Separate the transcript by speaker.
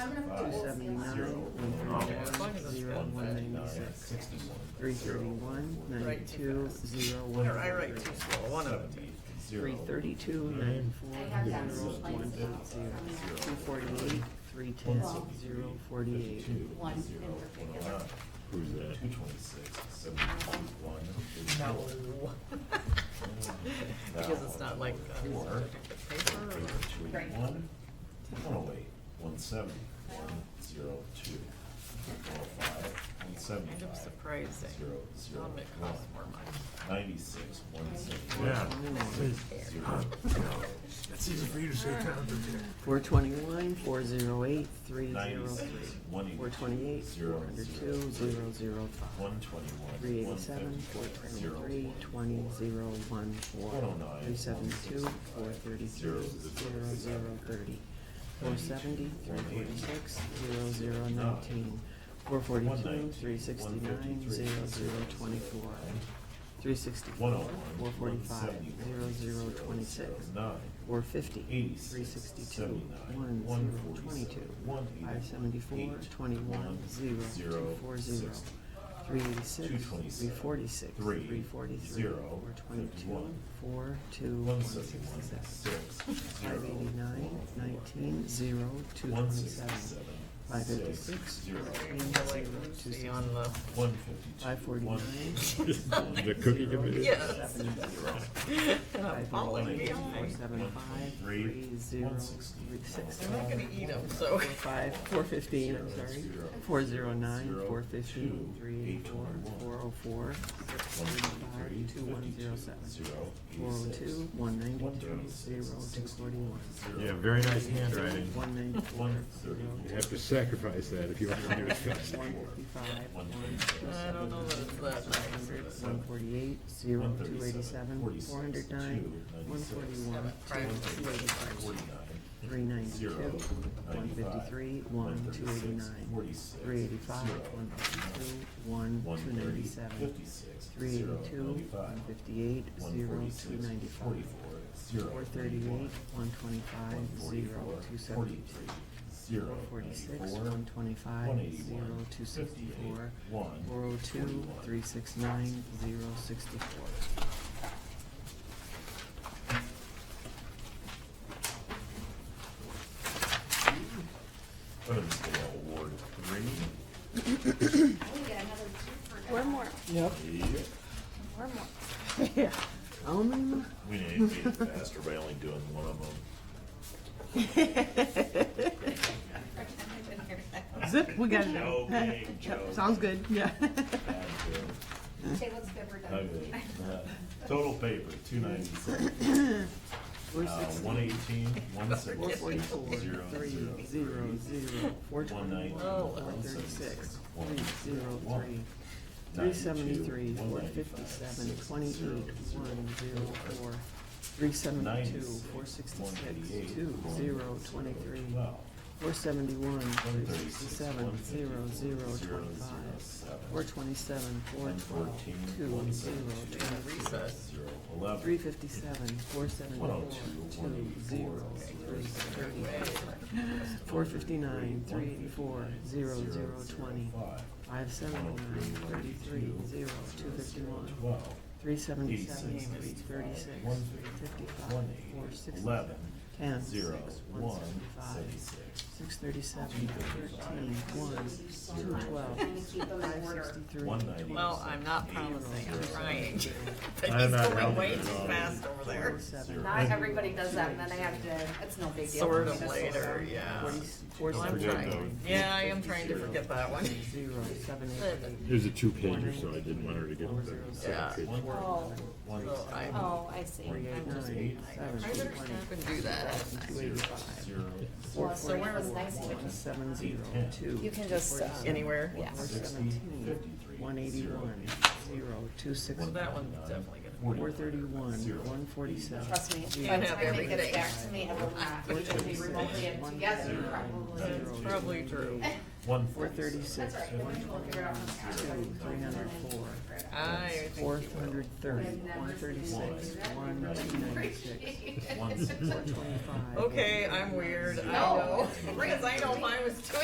Speaker 1: two seventy-nine, one thirty-one, zero, one ninety-six, three thirty-one, ninety-two, zero, one
Speaker 2: I write
Speaker 1: hundred.
Speaker 2: too slow, one of them.
Speaker 1: Three thirty-two, ninety-four, zero, one eight zero, two forty-eight, three ten, zero, forty-eight.
Speaker 3: one in particular.
Speaker 4: Who's that? Two twenty-six, seventy-one.
Speaker 2: No. Because it's not like, uh, it's
Speaker 4: Four.
Speaker 2: a paper or-
Speaker 3: Right.
Speaker 4: One, one oh eight, one seventy, one, zero, two, four, oh five, one
Speaker 2: kind of
Speaker 4: seventy-five.
Speaker 2: surprising.
Speaker 4: Zero, zero,
Speaker 2: Um, it
Speaker 4: one,
Speaker 2: costs more money.
Speaker 4: ninety-six, one seventy.
Speaker 5: Yeah.
Speaker 4: Zero,
Speaker 5: That's easy for you to say, Tom, but yeah.
Speaker 1: Four twenty-one, four zero eight, three zero
Speaker 4: ninety-six,
Speaker 1: three.
Speaker 4: one
Speaker 1: Four
Speaker 4: eighty-two,
Speaker 1: twenty-eight, four
Speaker 4: zero,
Speaker 1: hundred
Speaker 4: zero,
Speaker 1: two, zero, zero, five.
Speaker 4: one twenty-one,
Speaker 1: Three
Speaker 4: one
Speaker 1: eighty-seven, four
Speaker 4: fifty, zero,
Speaker 1: twenty-three,
Speaker 4: one,
Speaker 1: twenty,
Speaker 4: four.
Speaker 1: zero, one, four.
Speaker 4: One oh nine,
Speaker 1: Three seventy-two,
Speaker 4: one
Speaker 1: four thirty-three, zero, zero, thirty. Four seventy, three forty-six, zero, zero, nineteen. Four forty-two, three sixty-nine, zero, zero, twenty-four.
Speaker 4: One
Speaker 1: Three
Speaker 4: oh
Speaker 1: sixty-four,
Speaker 4: one,
Speaker 1: four
Speaker 4: one
Speaker 1: forty-five, zero,
Speaker 4: seventy-one,
Speaker 1: zero,
Speaker 4: zero,
Speaker 1: twenty-six.
Speaker 4: zero, nine.
Speaker 1: Four fifty, three
Speaker 4: 86,
Speaker 1: sixty-two,
Speaker 4: 79,
Speaker 1: one,
Speaker 4: 147,
Speaker 1: zero, twenty-two.
Speaker 4: 188,
Speaker 1: Five seventy-four, twenty-one,
Speaker 4: 1,
Speaker 1: zero, two, four, zero.
Speaker 4: 60,
Speaker 1: Three eighty-six,
Speaker 4: 227,
Speaker 1: three forty-six,
Speaker 4: 3,
Speaker 1: three forty-three,
Speaker 4: 0,
Speaker 1: four twenty-two,
Speaker 4: 51,
Speaker 1: four, two, one
Speaker 4: 171,
Speaker 1: sixty-six.
Speaker 4: 6,
Speaker 1: Five
Speaker 4: 0,
Speaker 1: eighty-nine,
Speaker 4: 4,
Speaker 1: nineteen, zero, two
Speaker 4: 167,
Speaker 1: twenty-seven. Five
Speaker 4: 6,
Speaker 1: fifty-six,
Speaker 4: 0,
Speaker 1: thirteen,
Speaker 2: You
Speaker 1: zero,
Speaker 2: know, like
Speaker 1: two
Speaker 2: Lucy
Speaker 1: sixty.
Speaker 2: on the,
Speaker 4: 152,
Speaker 1: Five forty-nine,
Speaker 4: The
Speaker 5: cookie computer?
Speaker 2: Yes. and I'm
Speaker 1: five
Speaker 2: falling
Speaker 1: forty-eight, four
Speaker 2: behind.
Speaker 1: seventy-five, three, zero, three, six.
Speaker 2: I'm not gonna eat them, so.
Speaker 1: Four five, four fifteen, I'm sorry, four zero nine, four fifteen, three eighty-four, four oh four, five, two one zero seven, four oh two, one ninety-two, zero, two forty-one,
Speaker 5: Yeah, very nice handwriting.
Speaker 1: one ninety-four, zero,
Speaker 5: You have to sacrifice that if you want to do it fast.
Speaker 1: one fifty-five, one,
Speaker 2: I don't know that it's that nice.
Speaker 1: one forty-eight, zero, two eighty-seven, four hundred nine, one forty-one, two eighty-five, three ninety-two, one fifty-three, one, two eighty-nine, three eighty-five, one fifty-two, one, two ninety-seven, Three eighty-two, one fifty-eight, zero, two ninety-five. Four thirty-eight, one twenty-five, zero, two seventy-two. Four forty-six, one twenty-five, zero, two sixty-four. Four oh two, three six nine, zero, sixty-four.
Speaker 4: What is the award three?
Speaker 3: I would get another two for
Speaker 6: One more,
Speaker 1: Yep.
Speaker 4: Yep.
Speaker 6: one more.
Speaker 1: Um,
Speaker 4: We need to be faster by only doing one of them.
Speaker 1: zip, we got it.
Speaker 4: Joking, joking.
Speaker 1: Sounds good, yeah.
Speaker 4: Bad joke.
Speaker 3: Say what's good for done.
Speaker 4: Ugly. Uh, Total paper, two ninety-seven,
Speaker 1: Four
Speaker 4: uh, one eighteen, one sixty,
Speaker 1: Forty-four,
Speaker 4: zero,
Speaker 1: three,
Speaker 4: zero,
Speaker 1: zero, zero, four
Speaker 4: One
Speaker 1: twenty-one,
Speaker 4: nineteen,
Speaker 1: four
Speaker 4: one
Speaker 1: thirty-six,
Speaker 4: seventy-six, one
Speaker 1: three,
Speaker 4: zero,
Speaker 1: zero, three.
Speaker 4: one.
Speaker 1: Three
Speaker 4: 92,
Speaker 1: seventy-three, four
Speaker 4: 195,
Speaker 1: fifty-seven,
Speaker 4: 6,
Speaker 1: twenty-eight,
Speaker 4: 0,
Speaker 1: one, zero, four. Three seventy-two,
Speaker 4: 96,
Speaker 1: four sixty-six,
Speaker 4: 188,
Speaker 1: two,
Speaker 4: 1,
Speaker 1: zero, twenty-three.
Speaker 4: 12,
Speaker 1: Four seventy-one, three
Speaker 4: 136,
Speaker 1: sixty-seven, zero,
Speaker 4: 154, 0,
Speaker 1: zero, twenty-five.
Speaker 4: 7,
Speaker 1: Four twenty-seven, four
Speaker 4: 114,
Speaker 1: twelve, two, zero,
Speaker 4: 117,
Speaker 1: twenty-three.
Speaker 2: Recess.
Speaker 4: zero, eleven,
Speaker 1: Three fifty-seven, four seventy-four,
Speaker 4: 102,
Speaker 1: two,
Speaker 4: 184,
Speaker 1: zero, three, thirty-five. Four fifty-nine, three eighty-four, zero, zero, twenty.
Speaker 4: 155,
Speaker 1: Five seventy-nine, thirty-three, zero, two fifty-one.
Speaker 4: 12,
Speaker 1: Three seventy-seven,
Speaker 4: 86,
Speaker 1: three thirty-six,
Speaker 4: one,
Speaker 1: three fifty-five,
Speaker 4: one,
Speaker 1: four
Speaker 4: eight,
Speaker 1: sixty-seven.
Speaker 4: eleven,
Speaker 1: Ten, six,
Speaker 4: zero,
Speaker 1: one
Speaker 4: one,
Speaker 1: seventy-five.
Speaker 4: seventy-six,
Speaker 1: Six thirty-seven, thirteen, one, two twelve,
Speaker 3: Trying to keep those in
Speaker 1: five
Speaker 3: order.
Speaker 1: sixty-three,
Speaker 4: one ninety.
Speaker 2: Well, I'm not promising, I'm trying. But
Speaker 5: I'm
Speaker 2: he's
Speaker 5: not
Speaker 2: going way too
Speaker 5: helping at all.
Speaker 2: fast over there.
Speaker 1: forty-seven,
Speaker 3: Not everybody does that, and then I have to, it's no big deal.
Speaker 2: Sort of
Speaker 3: Just-
Speaker 2: later, yeah.
Speaker 1: forty, four
Speaker 2: Well, I'm
Speaker 5: Forget
Speaker 2: trying.
Speaker 5: those.
Speaker 2: Yeah, I am trying to forget that one.
Speaker 1: Zero, seven,
Speaker 5: It was a two-pager, so I didn't want her to get the
Speaker 2: Yeah.
Speaker 5: second page.
Speaker 3: Oh,
Speaker 4: One,
Speaker 2: So I, I
Speaker 6: Oh, I see.
Speaker 4: three,
Speaker 1: eight,
Speaker 4: eight,
Speaker 1: nine,
Speaker 4: eight,
Speaker 1: seven,
Speaker 2: better stop and do that.
Speaker 1: two eighty-five.
Speaker 4: zero,
Speaker 3: well, so where was nice to
Speaker 1: One
Speaker 3: just,
Speaker 1: seven zero two.
Speaker 6: You can just, uh,
Speaker 2: Anywhere?
Speaker 6: Yeah.
Speaker 1: Four seventeen, one eighty-one, zero, two sixty.
Speaker 2: Well, that one's definitely gonna.
Speaker 1: Four thirty-one, one forty-seven.
Speaker 3: trust me,
Speaker 2: You
Speaker 3: by the
Speaker 2: have
Speaker 3: time it
Speaker 2: everything.
Speaker 3: gets back to me, I will not, we should be remotely and together, probably.
Speaker 2: It's probably true.
Speaker 4: one.
Speaker 1: Four thirty-six,
Speaker 3: That's all right, then
Speaker 1: one
Speaker 3: we'll figure it out.
Speaker 1: twenty-two, three hundred four.
Speaker 2: I
Speaker 1: Four
Speaker 2: think you will.
Speaker 1: hundred thirty,
Speaker 2: Uh,
Speaker 1: one thirty-six, one two ninety-six,
Speaker 4: One,
Speaker 1: twenty-five.
Speaker 2: Okay, I'm weird, I
Speaker 3: No.
Speaker 2: know, because I know mine was two